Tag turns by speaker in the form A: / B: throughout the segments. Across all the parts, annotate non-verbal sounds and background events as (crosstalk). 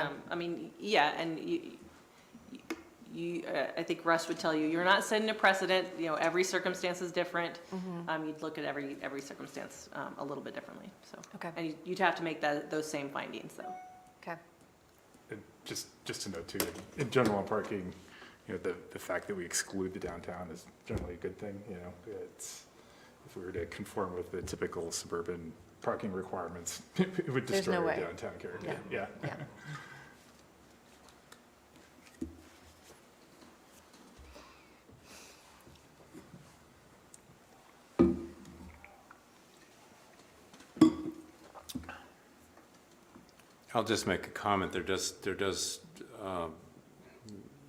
A: um, I mean, yeah, and you, you, uh, I think Russ would tell you, you're not setting a precedent, you know, every circumstance is different.
B: Mm-hmm.
A: Um, You'd look at every, every circumstance um, a little bit differently, so.
B: Okay.
A: And you- you'd have to make that, those same findings, though.
B: Okay.
C: And Just, just to note too, that in general on parking, you know, the, the fact that we exclude the downtown is generally a good thing, you know? It's, if we were to conform with the typical suburban parking requirements, (laughs) it would
B: There's
C: destroy
B: no
C: our
B: way.
C: downtown character. Yeah.
B: Yeah.
D: I'll just make a comment. There does, there does um,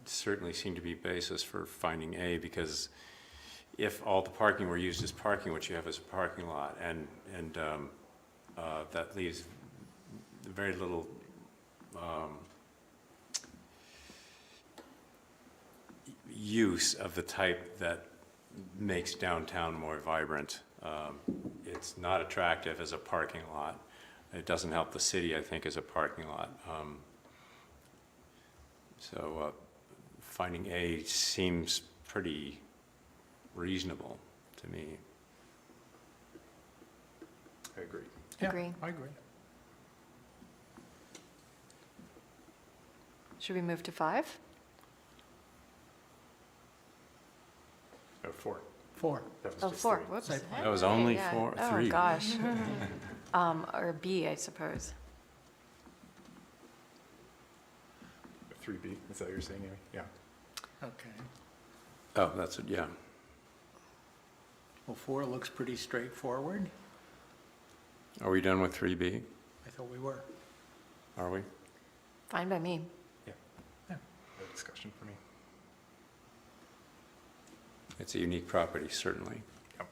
D: certainly seem to be basis for finding A because if all the parking were used as parking, what you have is a parking lot, and, and um, uh, that leaves very little um, use of the type that makes downtown more vibrant. Um, It's not attractive as a parking lot. It doesn't help the city, I think, as a parking lot. Um, So uh, finding A seems pretty reasonable to me.
C: (laughs) I agree.
B: Yeah, Agree.
C: I agree.
B: Should we move to five?
C: Oh, four.
E: Four.
C: That was
B: Oh,
C: just
B: four,
C: three.
B: whoops.
E: Site plan.
D: That was
B: Hey,
D: only
B: yeah.
D: four-
B: Oh,
D: three. (laughs)
B: gosh. Um, Or B, I suppose.
C: Three B, is that what you're saying, Amy? Yeah.
E: Okay.
D: Oh, that's, it. yeah.
E: Well, four looks pretty straightforward.
D: Are we done with 3B?
E: I thought we were.
D: Are we?
B: Fine by me.
C: No discussion for me.
D: It's a unique property, certainly.
C: Yep.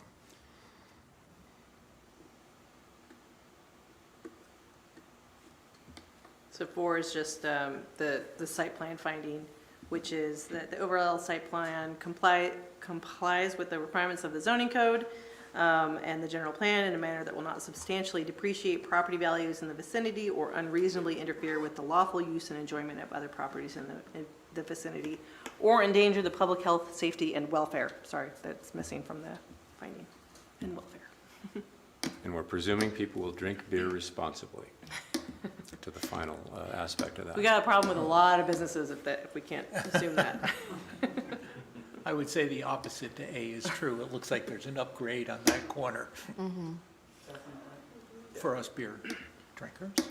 A: So four is just um, the, the site plan finding, which is that the overall site plan comply, complies with the requirements of the zoning code um, and the general plan in a manner that will not substantially depreciate property values in the vicinity or unreasonably interfere with the lawful use and enjoyment of other properties in the, in the vicinity or endanger the public health, safety, and welfare. Sorry, that's missing from the finding, and welfare.
D: And we're presuming people will drink beer (laughs) responsibly to the final uh, aspect of that.
A: We got a problem with a lot of businesses if that, if we can't assume that.
E: I would say the opposite to A is true. It looks like there's an upgrade on that corner. For us beer drinkers.
D: But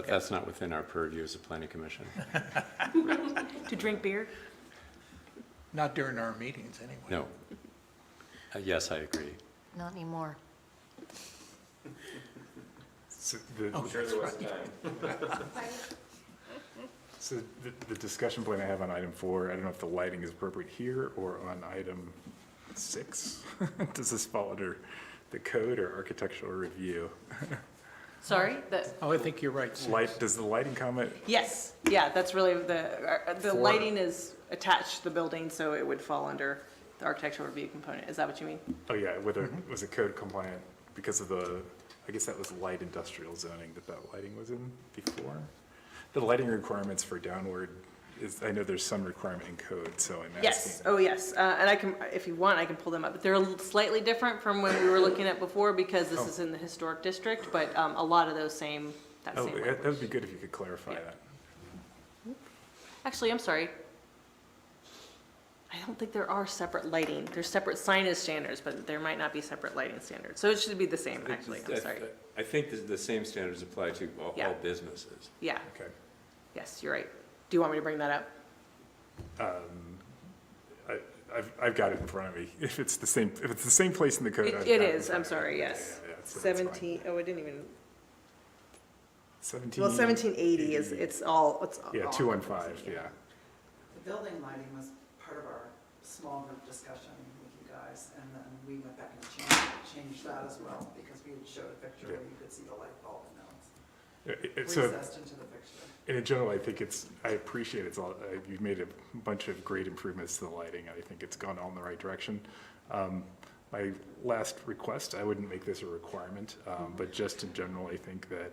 E: Okay,
D: That's not within our purview as a planning commission.
A: (laughs) To drink beer?
E: not during our meetings, anyway.
D: No. Uh, Yes, I agree.
B: Not anymore.
C: So the-
E: Oh, that's right.
C: So the, the discussion point I have on item four, I don't know if the lighting is appropriate here or on item six. (laughs) Does this fall under the code or architectural review?
A: Sorry, the,
E: Oh, I think you're right, Sue.
C: Light, does the lighting comment,
A: yes, yeah, that's really the, uh, the
C: For-
A: lighting is attached to the building, so it would fall under the architectural review component. Is that what you mean?
C: oh yeah, whether it was a code compliant because of the, I guess that was light industrial zoning that that lighting was in before? The lighting requirements for downward is, I know there's some requirement in code, so I'm asking.
A: Yes, oh, yes, uh, and I can, if you want, I can pull them up. They're slightly different from when we were looking at before because this
C: Oh.
A: is in the historic district, but, um, a lot of those same, that
C: Oh,
A: same
C: that that
A: language.
C: would be good if you could clarify
A: Yeah.
C: that.
A: Actually, I'm sorry. I don't think there are separate lighting. There's separate signage standards, but there might not be separate lighting standards. So it should be the same, actually, I'm sorry.
D: I think the- the same standards apply to all-
A: Yeah.
D: all businesses.
A: Yeah,
C: Okay.
A: yes, you're right. Do you want me to bring that up?
C: I, I've, I've got it in front of me. (laughs) If it's the same, if it's the same place in the code.
A: It
C: I've
A: it
C: got it in
A: is, I'm
C: front of
A: sorry,
C: me.
A: yes.
C: Yeah, yeah, yeah, so that's fine.
A: Seventeen, oh, I didn't even,
C: Seventeen.
A: well, seventeen eighty is,
C: eighty.
A: it's all, it's all.
C: Yeah, two one five, yeah.
F: The building lighting was part of our small group discussion with you guys, and then we went back and changed, changed that as well, because we had showed a picture where you could see the light bulb, and that
C: It- it-
F: was
C: So
F: recessed into the picture.
C: in general, I think it's, I appreciate it's all, uh, you've made a bunch of great improvements to the lighting. I think it's gone all in the right direction. Um, My last request, I wouldn't make this a requirement, um, but just in general, I think that